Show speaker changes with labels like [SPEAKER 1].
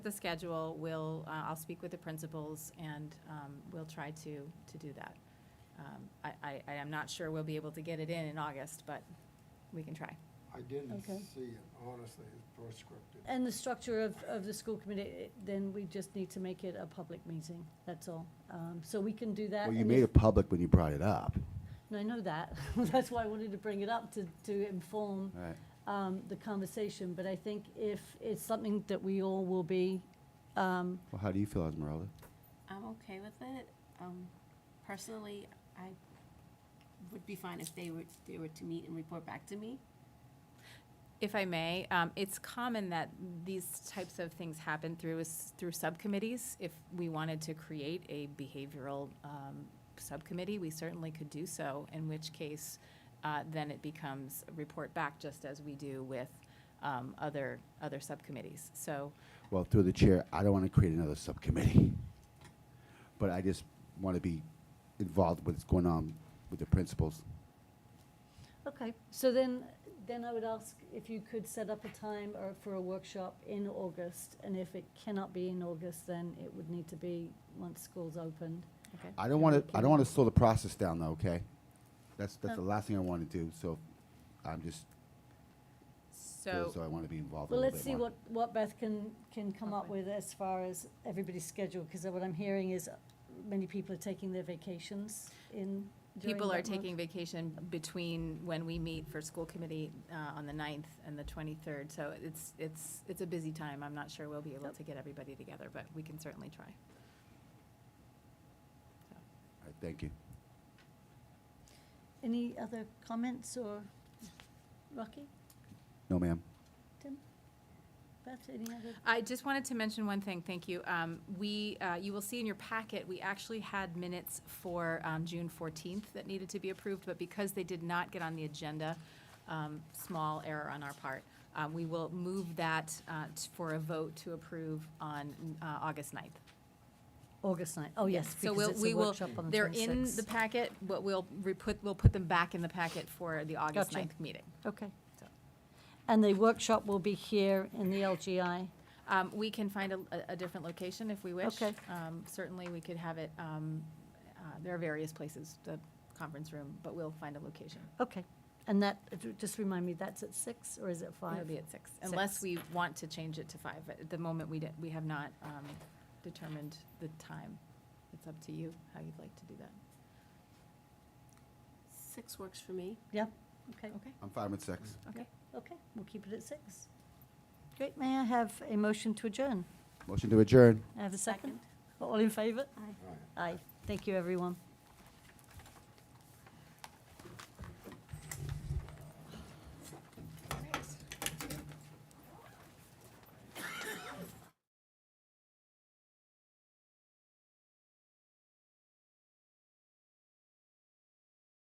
[SPEAKER 1] the schedule, we'll, uh, I'll speak with the principals, and um, we'll try to, to do that. Um, I, I, I am not sure we'll be able to get it in in August, but we can try.
[SPEAKER 2] I didn't
[SPEAKER 3] Okay.
[SPEAKER 2] see it, honestly, it's prescriptive.
[SPEAKER 3] And the structure of, of the school committee, it- then we just need to make it a public meeting, that's all. Um, So we can do that.
[SPEAKER 4] Well, you
[SPEAKER 3] and
[SPEAKER 4] made
[SPEAKER 3] if-
[SPEAKER 4] it public when you brought it up.
[SPEAKER 3] And I know that, that's why I wanted to bring it up, to, to inform
[SPEAKER 4] Right.
[SPEAKER 3] um, the conversation. But I think if it's something that we all will be, um,
[SPEAKER 4] Well, how do you feel, Esmeralda?
[SPEAKER 5] I'm okay with it. Um, personally, I would be fine if they were, they were to meet and report back to me.
[SPEAKER 1] If I may, um, it's common that these types of things happen through, s- through subcommittees. If we wanted to create a behavioral um, subcommittee, we certainly could do so, in which case, uh, then it becomes a report back, just as we do with um, other, other subcommittees. So
[SPEAKER 4] Well, through the chair, I don't want to create another subcommittee. But I just want to be involved with what's going on with the principals.
[SPEAKER 3] okay. So then, then I would ask if you could set up a time or for a workshop in August. And if it cannot be in August, then it would need to be once school's opened.
[SPEAKER 1] okay.
[SPEAKER 4] I don't want to, I don't want to slow the process down though, okay? That's, that's the
[SPEAKER 3] No.
[SPEAKER 4] last thing I want to do, so I'm just, feel as though
[SPEAKER 1] So,
[SPEAKER 4] I want to be involved a
[SPEAKER 3] Well,
[SPEAKER 4] little bit more.
[SPEAKER 3] let's see what, what Beth can, can come up
[SPEAKER 1] Okay.
[SPEAKER 3] with as far as everybody's schedule, because what I'm hearing is uh, many people are taking their vacations in during
[SPEAKER 1] people are
[SPEAKER 3] that month.
[SPEAKER 1] taking vacation between when we meet for school committee uh, on the 9th and the 23rd. So it's, it's, it's a busy time. I'm not sure we'll be able
[SPEAKER 3] Yep.
[SPEAKER 1] to get everybody together, but we can certainly try.
[SPEAKER 4] All right, Thank you.
[SPEAKER 3] Any other comments or, Rocky,
[SPEAKER 4] No, ma'am.
[SPEAKER 3] Tim? Beth, any other?
[SPEAKER 1] I just wanted to mention one thing, thank you. Um, We, uh, you will see in your packet, we actually had minutes for um, June 14th that needed to be approved, but because they did not get on the agenda, um, small error on our part, uh, we will move that uh, t- for a vote to approve on uh, August 9th.
[SPEAKER 3] August night, oh, yes,
[SPEAKER 1] So
[SPEAKER 3] because
[SPEAKER 1] we'll-
[SPEAKER 3] it's
[SPEAKER 1] we
[SPEAKER 3] a
[SPEAKER 1] will-
[SPEAKER 3] workshop on the
[SPEAKER 1] They're in the
[SPEAKER 3] 26th.
[SPEAKER 1] packet, but we'll re-put, we'll put them back in the packet for the August
[SPEAKER 3] Gotcha.
[SPEAKER 1] 9th meeting.
[SPEAKER 3] Okay.
[SPEAKER 1] So.
[SPEAKER 3] And the workshop will be here in the LGI.
[SPEAKER 1] Um, we can find a, a- a different location if we wish.
[SPEAKER 3] Okay.
[SPEAKER 1] Um, certainly, we could have it, um, uh, there are various places, the conference room, but we'll find a location.
[SPEAKER 3] Okay, and that, just remind me, that's at six or is it
[SPEAKER 1] It'll
[SPEAKER 3] five?
[SPEAKER 1] be at six, unless
[SPEAKER 3] Six.
[SPEAKER 1] we want to change it to five. At the moment, we did, we have not, um, determined the time. It's up to you, how you'd like to do that.
[SPEAKER 5] Six works for me.
[SPEAKER 3] Okay.
[SPEAKER 1] Okay,
[SPEAKER 4] I'm fine with six.
[SPEAKER 1] okay.
[SPEAKER 3] Okay, we'll keep it at six. Great, may I have a motion to adjourn?
[SPEAKER 4] Motion to adjourn.
[SPEAKER 3] I have a second? All in favor?
[SPEAKER 2] All right.
[SPEAKER 3] Aye. Thank you, everyone.